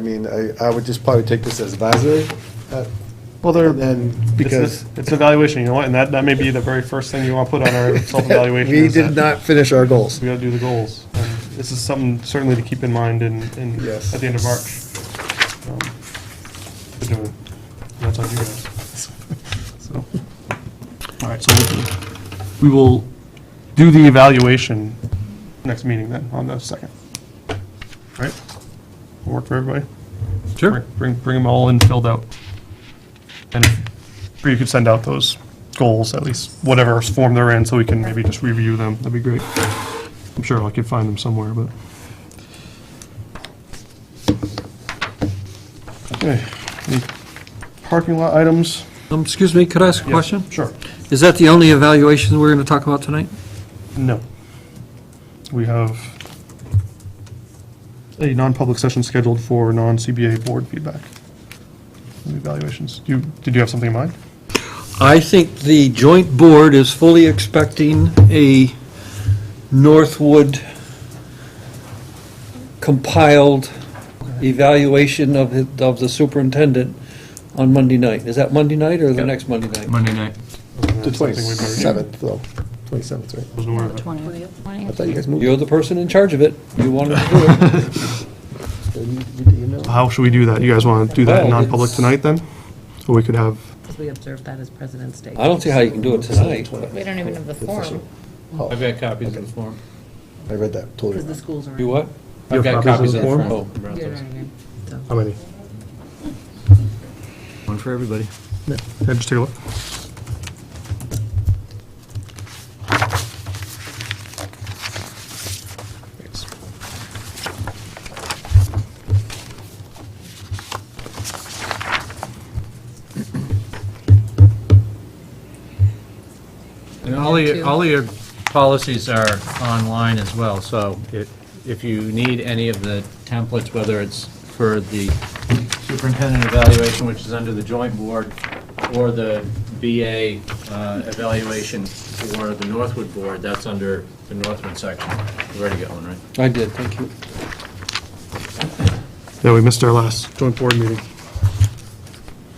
I mean, I, I would just probably take this as advisory. uh, Well, they're, And then, it's, because it's evaluation, you know what, and that, that may be the very first thing you want to put on our self-evaluation. we is did that not finish our goals. We gotta do the goals. And This is something certainly to keep in mind in, in, Yes. at the end of March. Um, to do it. That's on you guys. So, all right, so we- we will do the evaluation next meeting then, on the second. All right? Work for everybody? Bring- Bring, bring them all in filled out. And if- or you could send out those goals, at least whatever form they're in, so we can maybe just review them. That'd be great. I'm sure I could find them somewhere, but. Okay, any parking lot items? Um, Excuse me, could I ask a Yeah, question? Sure. Is that the only evaluation we're going to talk about tonight? No. We have a non-public session scheduled for non-CBA board feedback. and Evaluations. Do you, did you have something in mind? I think the joint board is fully expecting a Northwood compiled evaluation of, hi- of the superintendent on Monday night. Is that Monday night or the next Monday night? Monday night. The Something we've already- twenty-seventh, though. Twenty-seventh, right? Wasn't aware of that. I thought you guys moved. You're the person in charge of it. You wanted to do it. How should we do that? You guys want to do that in Well, non-public it's- tonight then? Or we could have, Because we observe that as President's Day. I don't see how you can do it tonight. but- We don't even have the form, Oh, I've got copies in the form. I read that, totally. because the schools are. You what? You have I've got copies copies of in the the form? form. Brought You know those. what I mean? So- how many? One for everybody. Yeah, just take a look. And all Two. your, all your policies are online as well, so if, if you need any of the templates, whether it's for the superintendent evaluation, which is under the joint board, or the BA uh, evaluation for the Northwood board, that's under the Northwood section. You Ready to get one, right? I did, thank you. Yeah, we missed our last joint board meeting.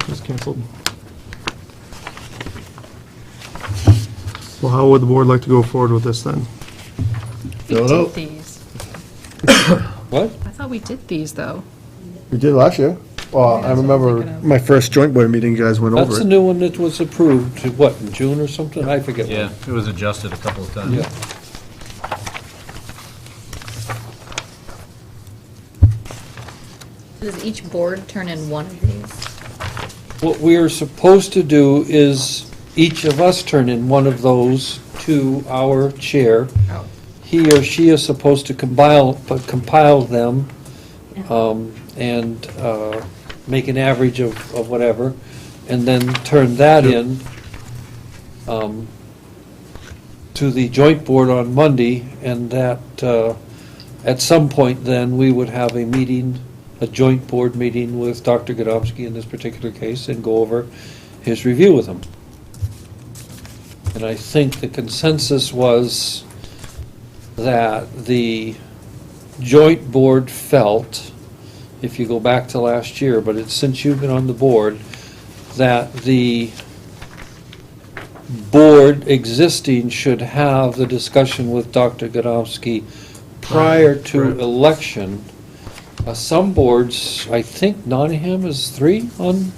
It was canceled. Well, how would the board like to go forward with this then? We did these. What? I thought we did these, though. We did last year. Well, I remember my first joint board meeting, you guys went That's over the it. new one that was approved, what, in June or something? I forget. when. it was adjusted a couple of times. Yeah. Does each board turn in one of these? What we are supposed to do is each of us turn in one of those to our chair. Oh. He or she is supposed to compile, but compile them um, and uh, make an average of, of whatever, and then turn that in um, to the joint board on Monday, and that, uh, at some point then, we would have a meeting, a joint board meeting with Dr. Godomsky in this particular case, and go over his review with him. And I think the consensus was that the joint board felt, if you go back to last year, but it's since you've been on the board, that the board existing should have the discussion with Dr. Godomsky prior to Right. election. Uh, Some boards, I think Nottingham is three on,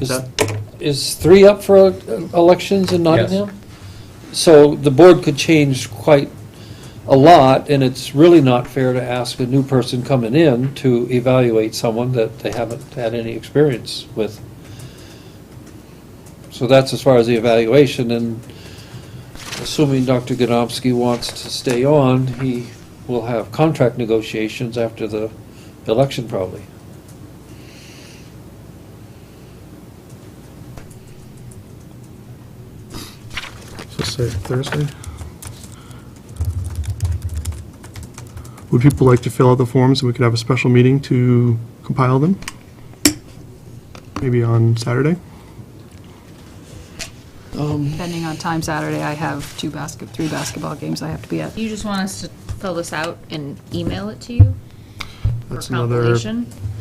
is, is three up for uh, elections in Nottingham? So the board could change quite a lot, and it's really not fair to ask a new person coming in to evaluate someone that they haven't had any experience with. So that's as far as the evaluation, and assuming Dr. Godomsky wants to stay on, he will have contract negotiations after the election probably. So say Thursday? Would people like to fill out the forms and we could have a special meeting to compile them? Maybe on Saturday? Depending on time Saturday, I have two basket, three basketball games I have to be at. You just want us to fill this out and email it to you? for That's another- compilation.